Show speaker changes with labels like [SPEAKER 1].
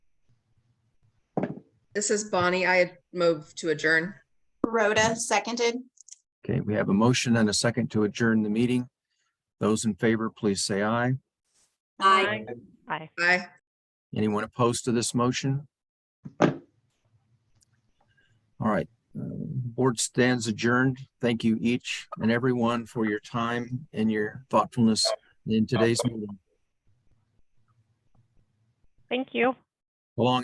[SPEAKER 1] This is Bonnie. I had moved to adjourn.
[SPEAKER 2] Rhoda, seconded.
[SPEAKER 3] Okay, we have a motion and a second to adjourn the meeting. Those in favor, please say aye.
[SPEAKER 2] Aye.
[SPEAKER 4] Aye.
[SPEAKER 1] Aye.
[SPEAKER 3] Anyone opposed to this motion? All right, uh, board stands adjourned. Thank you each and everyone for your time and your thoughtfulness in today's meeting.
[SPEAKER 4] Thank you.
[SPEAKER 3] Along